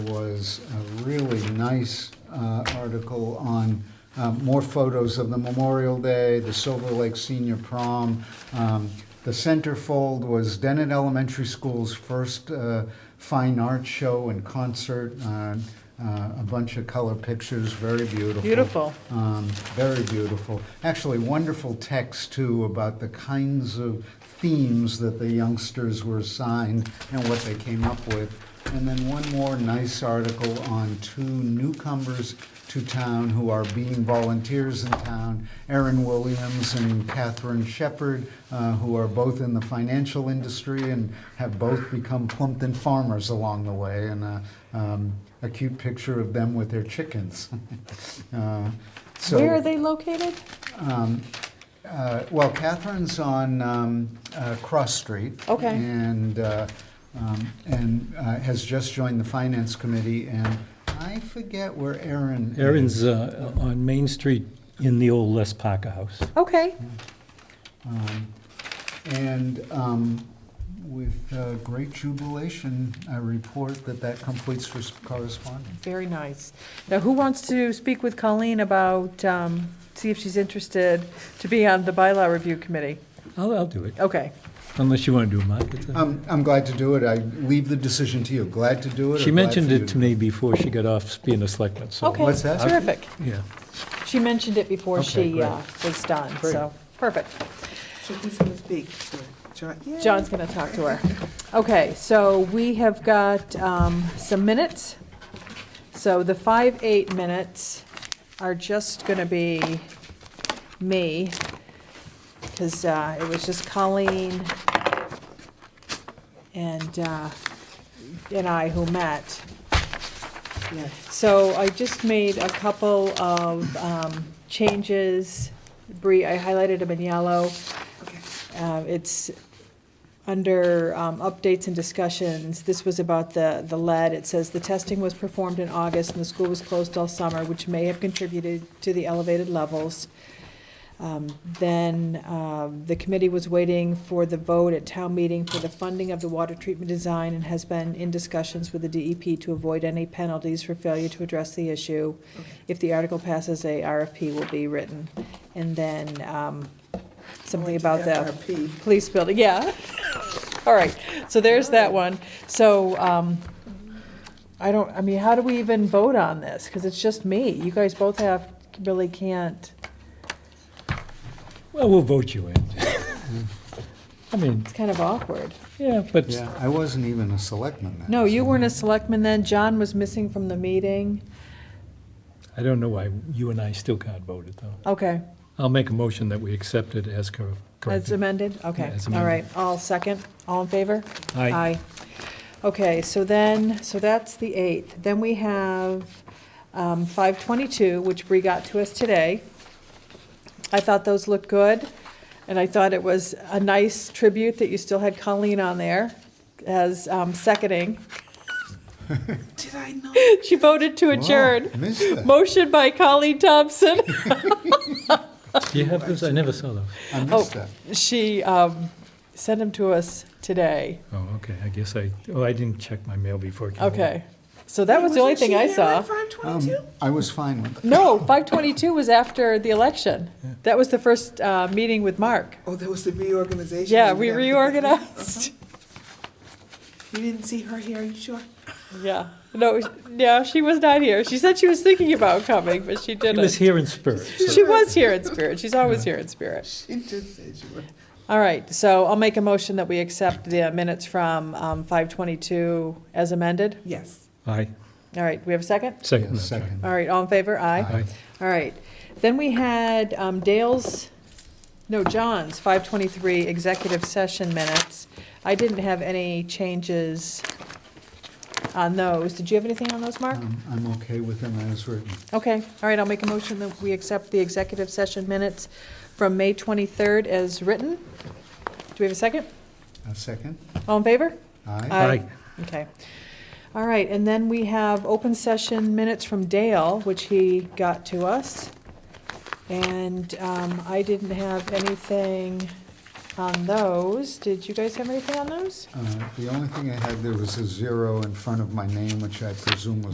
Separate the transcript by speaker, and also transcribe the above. Speaker 1: was a really nice uh, article on um, more photos of the Memorial Day, the Silver Lake Senior Prom. Um, The centerfold was Denet Elementary School's first uh, fine art show and concert. uh, uh, A bunch of color pictures, very beautiful.
Speaker 2: Beautiful.
Speaker 1: Um, Very beautiful. Actually, wonderful text, too, about the kinds of themes that the youngsters were assigned and what they came up with. And then one more nice article on two newcomers to town who are being volunteers in town, Erin Williams and Catherine Shepherd, uh, who are both in the financial industry and have both become Plumpton farmers along the way, and uh, um, a cute picture of them with their chickens. Uh, so-
Speaker 2: Where are they located?
Speaker 1: Um, uh, Well, Catherine's on um, uh, Cross Street.
Speaker 2: Okay.
Speaker 1: And, uh, um, and uh, has just joined the Finance Committee, and I forget where Erin is.
Speaker 3: Erin's uh, on Main Street in the old Les Parker House.
Speaker 2: Okay,
Speaker 1: Um, And um, with uh, great jubilation, I report that that completes for correspondence.
Speaker 2: very nice. Now, who wants to speak with Colleen about, um, see if she's interested to be on the bylaw review committee?
Speaker 3: I'll, I'll do it,
Speaker 2: Okay,
Speaker 3: unless you want to do it, Mark. It's uh, a-
Speaker 1: Um, I'm glad to do it. I leave the decision to you. Glad to do it. or
Speaker 3: She
Speaker 1: glad
Speaker 3: mentioned
Speaker 1: for you
Speaker 3: it to me before she got off being a selectman, so.
Speaker 2: okay.
Speaker 1: what's that?
Speaker 2: Terrific.
Speaker 3: Yeah.
Speaker 2: She mentioned it before
Speaker 1: Okay,
Speaker 2: she
Speaker 1: great.
Speaker 2: uh, was done,
Speaker 1: Great.
Speaker 2: so, perfect.
Speaker 4: So who's going to speak? John? Yay.
Speaker 2: John's going to talk to her. Okay, so we have got um, some minutes. So the five, eight minutes are just going to be me, because it was just Colleen and, uh, and I who met.
Speaker 4: Yeah.
Speaker 2: So I just made a couple of um, changes. Bree, I highlighted them in yellow.
Speaker 4: Okay.
Speaker 2: Uh, It's under um, updates and discussions, this was about the, the lead. It says, "The testing was performed in August and the school was closed all summer, which may have contributed to the elevated levels." Um, Then um, the committee was waiting for the vote at town meeting for the funding of the water treatment design and has been in discussions with the DEP to avoid any penalties for failure to address the issue. If the article passes, a RFP will be written. And then um, something about the
Speaker 4: FRP.
Speaker 2: police building, yeah. All right, so there's that one. So, um, I don't, I mean, how do we even vote on this? Because it's just me. You guys both have, really can't.
Speaker 3: Well, we'll vote you in. I mean,
Speaker 2: It's kind of awkward.
Speaker 3: yeah, but
Speaker 1: Yeah, I wasn't even a selectman then. Oh,
Speaker 2: No, you weren't a selectman then. John was missing from the meeting.
Speaker 3: I don't know why you and I still can't vote it, though.
Speaker 2: Okay,
Speaker 3: I'll make a motion that we accept it as cor-
Speaker 2: that's
Speaker 3: corrected.
Speaker 2: amended? Okay,
Speaker 3: Yeah, it's
Speaker 2: all right. All second, all in favor?
Speaker 3: Aye.
Speaker 2: Okay, so then, so that's the 8th. Then we have um, 522, which Bree got to us today. I thought those looked good, and I thought it was a nice tribute that you still had Colleen on there as um, seconding.
Speaker 4: Did I know?
Speaker 2: She voted to
Speaker 1: Wow,
Speaker 2: adjourn.
Speaker 1: Missed that.
Speaker 2: Motion by Colleen Thompson.
Speaker 3: Do you have those? I never saw those.
Speaker 1: I
Speaker 2: Oh.
Speaker 1: missed that.
Speaker 2: She um, sent them to us today.
Speaker 3: Oh, okay, I guess I, oh, I didn't check my mail before. it came over.
Speaker 2: Okay, so that was the only
Speaker 4: Wasn't
Speaker 2: thing
Speaker 4: she
Speaker 2: I
Speaker 4: here
Speaker 2: saw.
Speaker 4: at
Speaker 1: Um,
Speaker 4: 5:22?
Speaker 1: I was fine with it.
Speaker 2: No, 522 was after the election. That was the first uh, meeting with Mark.
Speaker 4: Oh, there was the reorganization.
Speaker 2: Yeah,
Speaker 4: and
Speaker 2: we
Speaker 4: everything.
Speaker 2: reorganized.
Speaker 4: Uh-huh. You didn't see her here, are you sure?
Speaker 2: Yeah, no, yeah, she was not here. She said she was thinking about coming, but she
Speaker 3: It was
Speaker 2: didn't.
Speaker 3: here in spirit. so-
Speaker 2: She was here in spirit. She's always here in spirit.
Speaker 4: She did say she was.
Speaker 2: All right, so I'll make a motion that we accept the minutes from um, 522 as amended.
Speaker 4: Yes.
Speaker 3: Aye,
Speaker 2: All right, we have a second?
Speaker 3: second.
Speaker 1: Yes,
Speaker 3: that's right.
Speaker 1: second.
Speaker 2: All right, all in favor? Aye.
Speaker 3: Aye.
Speaker 2: All right. Then we had um, Dale's, no, John's 523 executive session minutes. I didn't have any changes on those. Did you have anything on those, Mark?
Speaker 1: Um, I'm okay with them as written.
Speaker 2: Okay, all right, I'll make a motion that we accept the executive session minutes from May 23rd as written. Do we have a second?
Speaker 1: A second?
Speaker 2: All in favor?
Speaker 1: Aye.
Speaker 2: Aye. Okay. All right, and then we have open session minutes from Dale, which he got to us. And um, I didn't have anything on those. Did you guys have anything on those?
Speaker 1: Uh, The only thing I had there was a zero in front of my name, which I presume was